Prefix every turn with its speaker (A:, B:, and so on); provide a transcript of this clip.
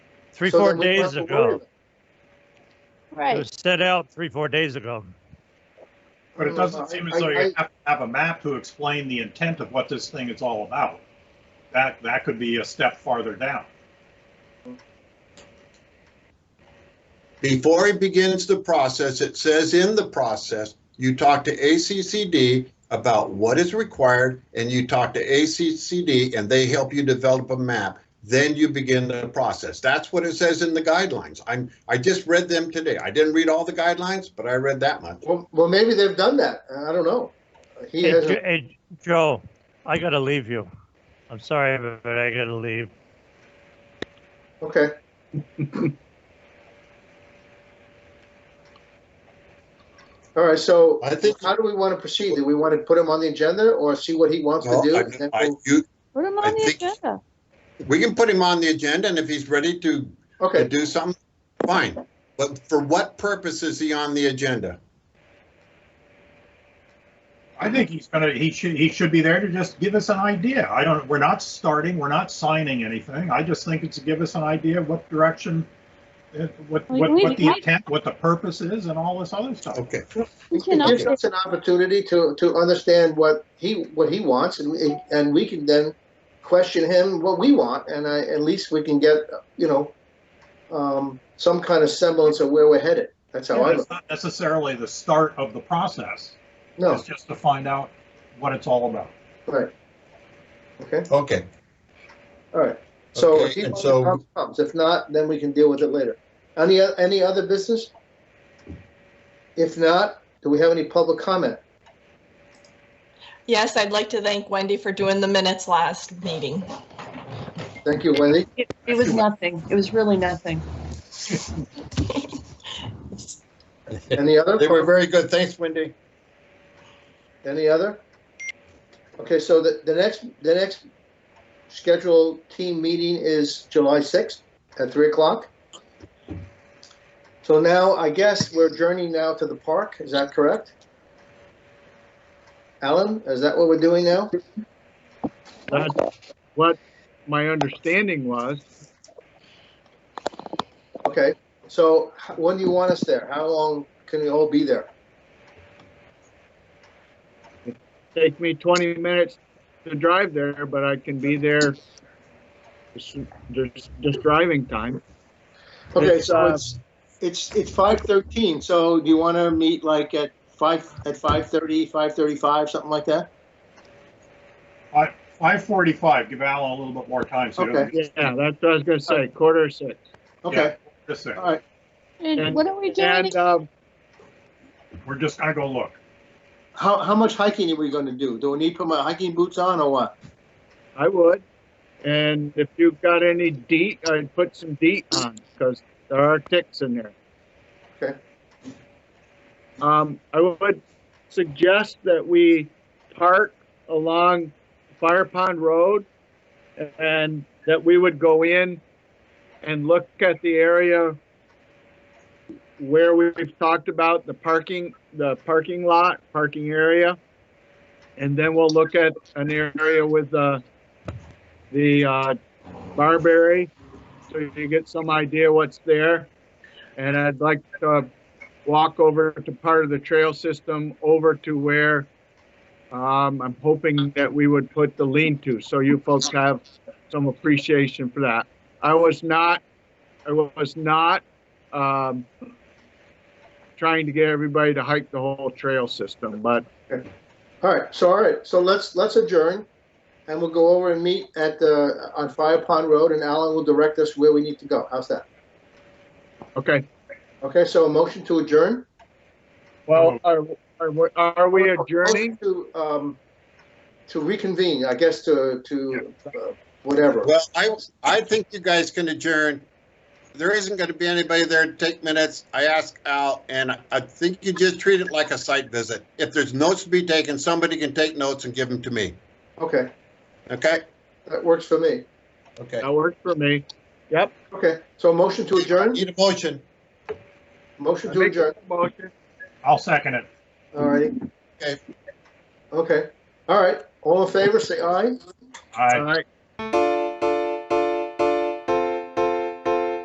A: Three,
B: so
A: four
B: then we don't
A: days
B: have to worry
A: ago.
B: about
A: It
C: Right,
A: was set out three, four days ago.
D: But it doesn't seem as though you have to have a map to explain the intent of what this thing is all about. That, that could be a step farther down.
B: it. Before he begins the process, it says in the process, you talk to ACCD about what is required and you talk to ACCD and they help you develop a map. Then you begin the process. That's what it says in the guidelines. I'm, I just read them today. I didn't read all the guidelines, but I read that much.
E: Well, well, maybe they've done that. I don't know. He
A: Hey, Jo-
E: hasn't.
A: hey, Joe, I gotta leave you. I'm sorry, but- but I gotta leave.
E: Okay. All right, so
B: I think-
E: how do we want to proceed? Do we want to put him on the agenda or see what he wants to
B: No,
E: do?
B: I-
E: and then
B: I-
E: we'll-
B: you-
C: put him
B: I
C: on the
B: think-
C: agenda.
B: We can put him on the agenda and if he's ready to to
E: Okay,
B: do something, fine. But for what purpose is he on the agenda?
D: I think he's gonna, he should, he should be there to just give us an idea. I don't, we're not starting, we're not signing anything. I just think it's to give us an idea of what direction, uh, what,
C: Well,
D: what,
C: we-
D: what the
C: I-
D: intent, what the purpose is and all this other stuff.
B: Okay,
C: We
E: it
C: can
E: gives
C: update,
E: us an opportunity to, to understand what he, what he wants and, we- and we can then question him what we want and I, at least we can get, you know, um, some kind of semblance of where we're headed. That's how I,
D: It's not necessarily the start of the process.
E: no.
D: It's just to find out what it's all about.
E: Right. Okay,
B: okay.
E: all right. So
B: Okay,
E: if he
B: and
E: wants
B: so-
E: to come, comes. If not, then we can deal with it later. Any, o- any other business? If not, do we have any public comment?
F: Yes, I'd like to thank Wendy for doing the minutes last meeting.
E: Thank you, Wendy.
G: It, it was nothing. It was really nothing.
E: Any other?
B: They were very good. Thanks, Wendy.
E: Any other? Okay, so the, the next, the next scheduled team meeting is July 6th at 3 o'clock. So now, I guess we're journeying now to the park, is that correct? Alan, is that what we're doing now?
H: That's what my understanding was.
E: Okay, so h- when do you want us there? How long can we all be there?
H: Take me 20 minutes to drive there, but I can be there just, just, just driving time.
E: Okay,
H: It's,
E: so
H: uh,
E: it's, it's, it's five thirteen, so do you want to meet like at five, at five thirty, five thirty-five, something like that?
D: Five, five forty-five, give Alan a little bit more time, so he
E: Okay.
D: doesn't
H: Yeah, that's what I was gonna say, quarter to six.
E: Okay,
D: just say,
E: all right,
C: And
H: And-
C: what are we doing?
H: And, um,
D: we're just gonna go look.
E: how, how much hiking are we going to do? Do we need to put my hiking boots on or what?
H: I would. And if you've got any DEET, I'd put some DEET on, because there are ticks in there.
E: Okay.
H: Um, I would suggest that we park along Fire Pond Road and that we would go in and look at the area where we've talked about the parking, the parking lot, parking area. And then we'll look at an area with, uh, the uh, Barberry, so you get some idea what's there. And I'd like to walk over to part of the trail system over to where um, I'm hoping that we would put the lean-to, so you folks have some appreciation for that. I was not, I was not um, trying to get everybody to hike the whole trail system, but
E: All right, so, all right, so let's, let's adjourn and we'll go over and meet at the, on Fire Pond Road and Alan will direct us where we need to go. How's that?
H: okay.
E: Okay, so a motion to adjourn?
H: Well, are, are, we- are we adjourning?
E: To, um, to reconvene, I guess, to, to, uh, whatever.
B: Well, I, I think you guys can adjourn. There isn't going to be anybody there to take minutes. I asked Al, and I think you just treat it like a site visit. If there's notes to be taken, somebody can take notes and give them to me.
E: Okay,
B: Okay?
E: that works for me.
B: Okay.
H: That worked for me. Yep.
E: Okay, so a motion to adjourn?
B: Need a motion.
E: Motion
H: I
E: to
H: make
E: adjourn,
H: that motion.
D: I'll second it.
E: all right.
B: Okay.
E: Okay, all right, all in favor, say aye.
D: I,
H: All right.